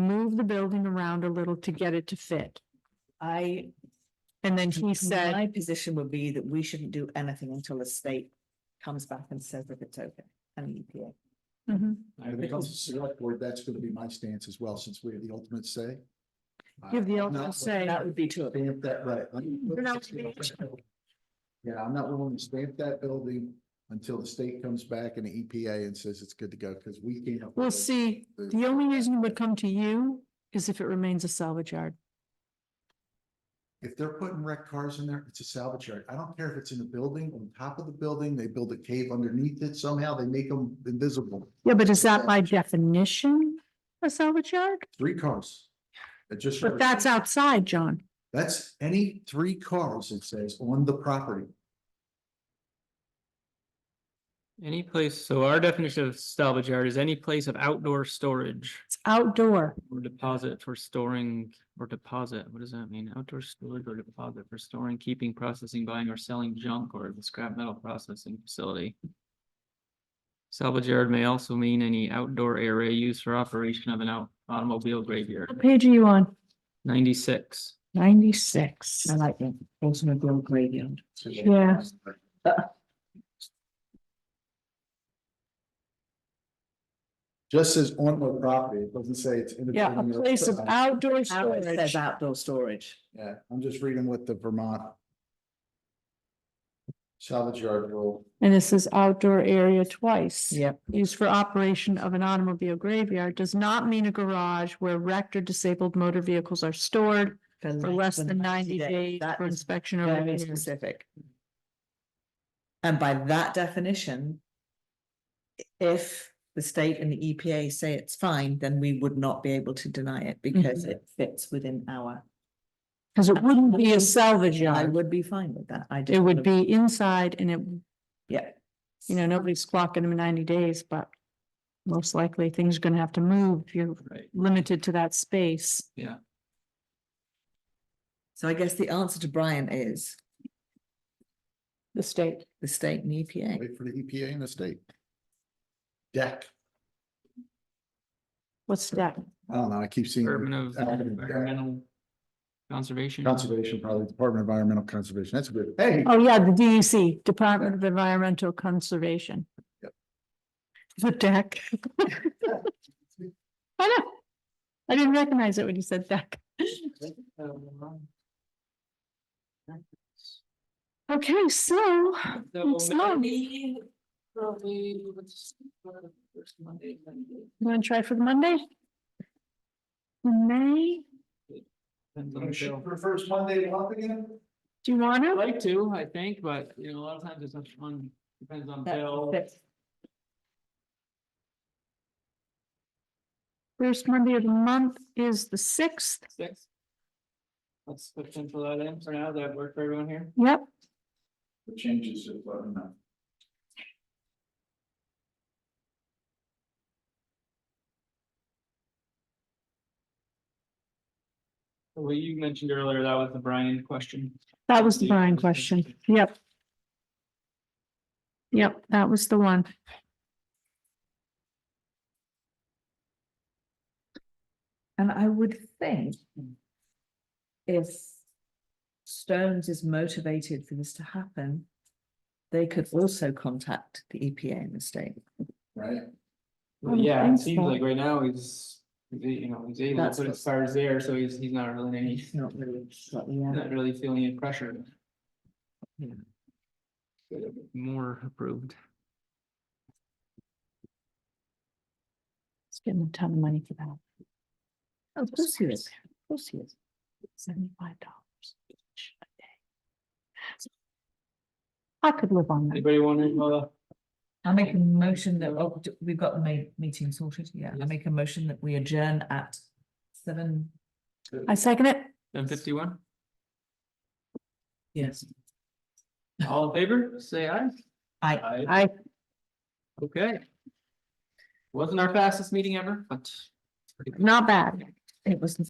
move the building around a little to get it to fit. I. And then he said, My position would be that we shouldn't do anything until the state comes back and says if it's E okay and the EPA. Mhm. When it comes to select board, that's gonna be my stance as well, since we have the ultimate say. You have the I'm ultimate not- say. That would be too- Stamp that, right. You're not gonna be- Yeah, I'm not willing to stamp that building until the state comes back and the EPA and says it's good to go, because we can't. we'll see. The only reason it would come to you is if it remains a salvage yard. If they're putting wrecked cars in there, it's a salvage yard. I don't care if it's in the building, on top of the building, they build a cave underneath it, somehow they make them invisible. Yeah, but is that by definition a salvage yard? Three cars. It just. But that's outside, John. That's any three cars, it says, on the property. Any place, so our definition of salvage yard is any place of outdoor storage It's outdoor. or deposit for storing or deposit. What does that mean? Outdoor storage or deposit for storing, keeping, processing, buying or selling junk or the scrap metal processing facility. Salvage yard may also mean any outdoor area used for operation of an out- automobile What graveyard. page are you on? Ninety-six. Ninety-six. I like that. Also a grow graveyard. Yeah. Just says on the property, it doesn't say it's in. the Yeah, a building or place of outside. outdoor Now it storage. says outdoor storage. Yeah, I'm just reading what the Vermont. Salvage yard rule. And this is outdoor area twice. Yep. Used for operation of an automobile graveyard does not mean a garage where wrecked or disabled motor vehicles are stored for less than ninety days That for is inspection or very repairs. specific. And by that definition. i- If the state and the EPA say it's fine, then we would not be able to deny it because Mm-hmm. it fits within our. Cause it wouldn't be a salvage I yard. would be fine with that. I just. It wanna- would be inside and it, Yeah. you know, nobody's clocking them in ninety days, but most likely things are gonna have to move. if You're Right. limited to that space. So I guess the answer to Brian is The state. the state and E EPA. Wait for the E EPA and the state. Deck. What's that? I don't know, I keep seeing. Department of I don't know, deck. Environmental Conservation. Conservation, probably Department of Environmental Conservation. That's a good, hey, Oh, yeah, the DEC, Department of Environmental Conservation. Yep. The deck. I know. I didn't recognize it when you said deck. Okay, so So- Monday, probably, let's, uh, first Monday, Monday. you want to try for the Monday? May, Depends on you the should bill. first Monday of the month again? do you want I'd to? like to, I think, but you know, a lot of times it's not fun, depends on That- bill. that's- First Monday of the month is the sixth. Six. Let's put pencil that in for now, that work for everyone here? Yep, The changes of, I don't know. Well, you mentioned earlier, that was the Brian question. that was the Brian question. Yep. Yep, that was the one. And I would think if Stones is motivated for this to happen, they could also contact the EPA and the state. right? Oh, Well, yeah, it thanks, seems Bob. like right now he's, he's, you know, he's able to That's put what- his fires there, so he's, he's not really in any, he's It's not really, what we have. not really feeling any pressure. Yeah. More approved. It's getting a ton of money for that. Oh, of course he is, of course he is. Seventy-five dollars each a day. I could live on that. Anybody want to, uh, I make a motion that, oh, d- we've got the ma- meeting sorted, yeah, I Yes. make a motion that we adjourn at seven. I second it. ten fifty-one? Yes. All in favor, say aye. I, Aye. I, Okay. Wasn't our fastest meeting ever, but. not bad. it was